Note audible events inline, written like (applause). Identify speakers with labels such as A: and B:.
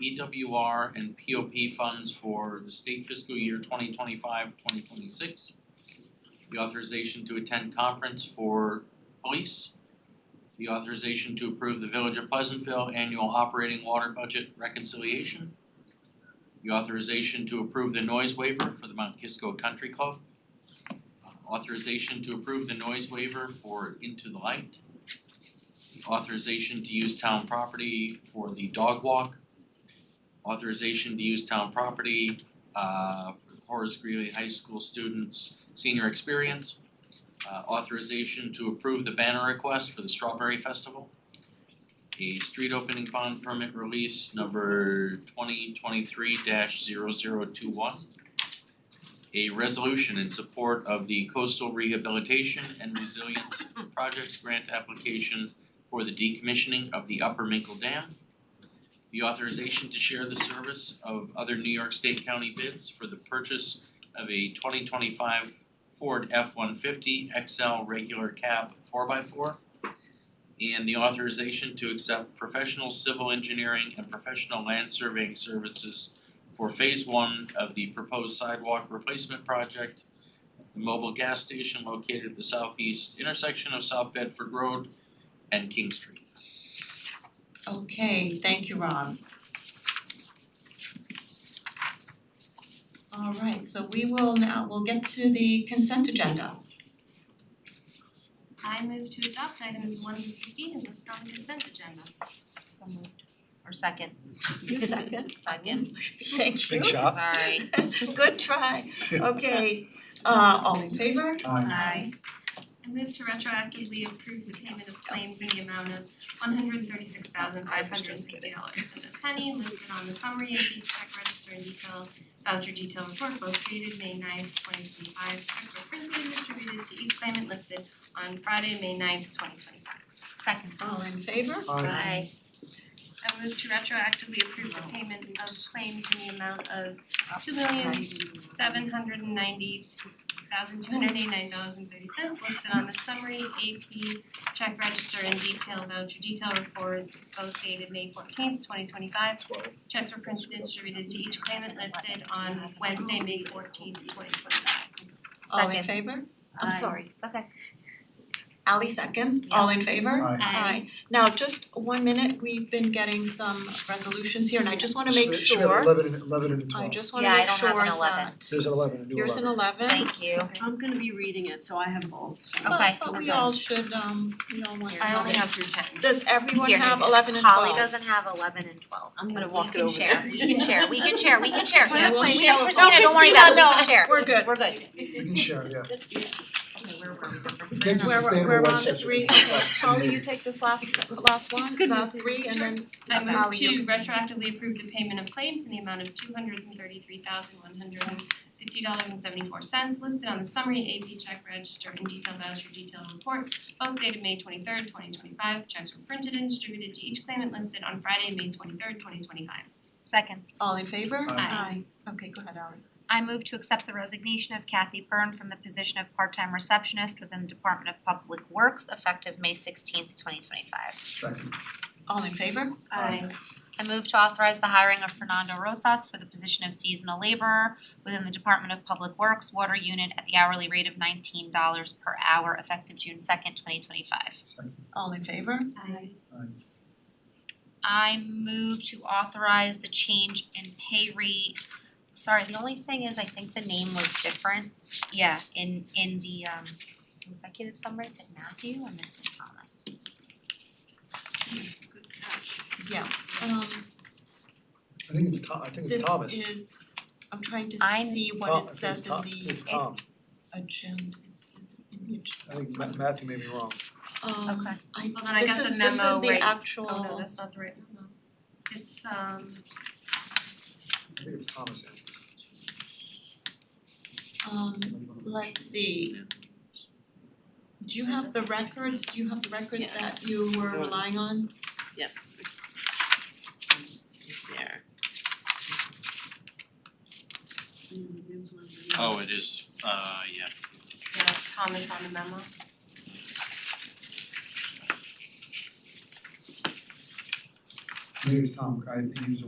A: BWR and POP funds for the state fiscal year 2025-2026. The authorization to attend conference for police. The authorization to approve the Village of Pleasantville annual operating water budget reconciliation. The authorization to approve the noise waiver for the Mount Kisco Country Club. Authorization to approve the noise waiver for Into the Light. Authorization to use town property for the dog walk. Authorization to use town property uh for Horace Greeley High School students' senior experience. Uh, authorization to approve the banner request for the Strawberry Festival. A street opening bond permit release number twenty twenty-three 21 a resolution in support of the coastal rehabilitation and resilience projects grant application for the decommissioning of the Upper Minkle Dam. The authorization to share the service of other New York State County bids for the purchase of a twenty twenty-five Ford F one fifty XL regular cab four x four. And the authorization to accept professional civil engineering and professional land surveying services for phase one of the proposed sidewalk replacement project. The mobile gas station located at the southeast intersection of South Bedford Road and King Street.
B: Okay, thank you, Rob. All right, so we will now, we'll get to the consent agenda.
C: I move to adopt items one through fifteen as listed on the consent agenda.
D: So moved. Or second. (laughs)
B: second? Second. Thank you.
E: Big shot. Up.
D: Sorry.
B: (laughs) Good
E: (laughs)
B: try. Okay, uh all in favor?
E: Aye.
D: Aye.
C: I move to retroactively approve the payment of claims in the amount of one hundred thirty-six thousand five hundred sixty dollars and a penny listed on the summary of the check register and detail voucher detail report both dated May 9th, twenty twenty-five. Checks were printed and distributed to each claimant listed on Friday, May 9th, twenty twenty-five.
D: Second.
B: All in favor?
E: Aye.
D: Aye.
C: I move to retroactively approve the payment of claims in the amount of two million seven hundred and ninety thousand two hundred eighty nine dollars and thirty cents listed on the summary AP check register and detail voucher detail report both dated May fourteenth, twenty twenty five. Checks were printed and distributed to each claimant listed on Wednesday, May fourteenth, twenty twenty five.
B: All in
D: Second.
B: favor? I'm
D: Aye.
B: sorry.
D: It's okay.
B: Ally seconds, all in favor?
E: Aye.
B: Aye. Now, just one minute, we've been getting some resolutions here and I just wanna make
E: Should- Should have
B: sure,
E: eleven and eleven and
B: I
E: twelve.
B: just wanna
D: Yeah, I
B: make
D: don't
B: sure
D: have an
B: that.
E: There's an eleven, a new
B: Here's an
E: eleven.
B: eleven.
D: Thank you.
F: I'm gonna be reading it, so I have both, so.
D: Okay,
B: But but we
D: okay.
B: all should, um, we all want.
C: I only have through ten.
B: Does everyone
D: Here.
B: have eleven and twelve?
D: Holly doesn't have eleven and twelve.
F: I'm gonna
D: We
F: walk it
D: can
F: over
D: share.
F: there.
D: We can share,
F: (laughs)
D: we can share, we can share.
C: Yeah, we'll
D: We can-
C: share.
D: Christina, don't worry about it, we can share.
B: We're good.
D: We're good.
E: We can share, yeah.
D: Okay, where were we? Number three.
E: Kids are
B: We're-
E: sustainable
B: we're on to
E: Westchester.
B: three. Holly, you take this last, last one, uh, three, and then
C: I move
B: Ally,
C: to
B: you-
C: retroactively approve the payment of claims in the amount of two hundred and thirty-three thousand one hundred and fifty dollars and seventy-four cents listed on the summary AP check register and detailed voucher detail report, both dated May twenty-third, twenty twenty-five. Checks were printed and distributed to each claimant listed on Friday, May twenty-third, twenty twenty-five.
D: Second.
B: All in favor?
C: Aye.
B: Okay, go ahead, Ally.
G: I move to accept the resignation of Kathy Byrne from the position of part-time receptionist within the Department of Public Works effective May sixteenth, twenty twenty-five.
E: Second.
B: All in favor?
E: Aye.
G: I move to authorize the hiring of Fernando Rosas for the position of seasonal laborer within the Department of Public Works Water Unit at the hourly rate of nineteen dollars per hour effective June second, twenty twenty-five.
E: Second.
B: All in favor?
C: Aye.
E: Aye.
G: I move to authorize the change in pay rate. Sorry, the only thing is I think the name was different. Yeah, in in the um executive summary, it's Matthew and this is Thomas.
B: Yeah, um,
E: I think it's Tom, I think
B: this
E: it's Thomas.
B: is, I'm trying to
G: I-
B: see
E: Tom-
B: what it says in
E: I think
B: the
E: it's Tom, I think
B: agenda, it's, is it in the
E: it's Tom.
B: agenda?
E: I think Ma- Matthew may be wrong.
B: Um,
G: Okay.
B: I,
C: Well, then I
B: this
C: got the
B: is, this is
C: memo
B: the
C: right-
B: actual.
C: Oh, no, that's not the right one. It's um
E: I think it's Thomas Andrews.
B: Um, let's see, do you have the records, do you have the records
F: Yeah.
B: that you were relying on?
F: There.
A: Oh, it is, uh, yeah.
C: yeah, Thomas on the memo.
E: I think it's Tom, I think he was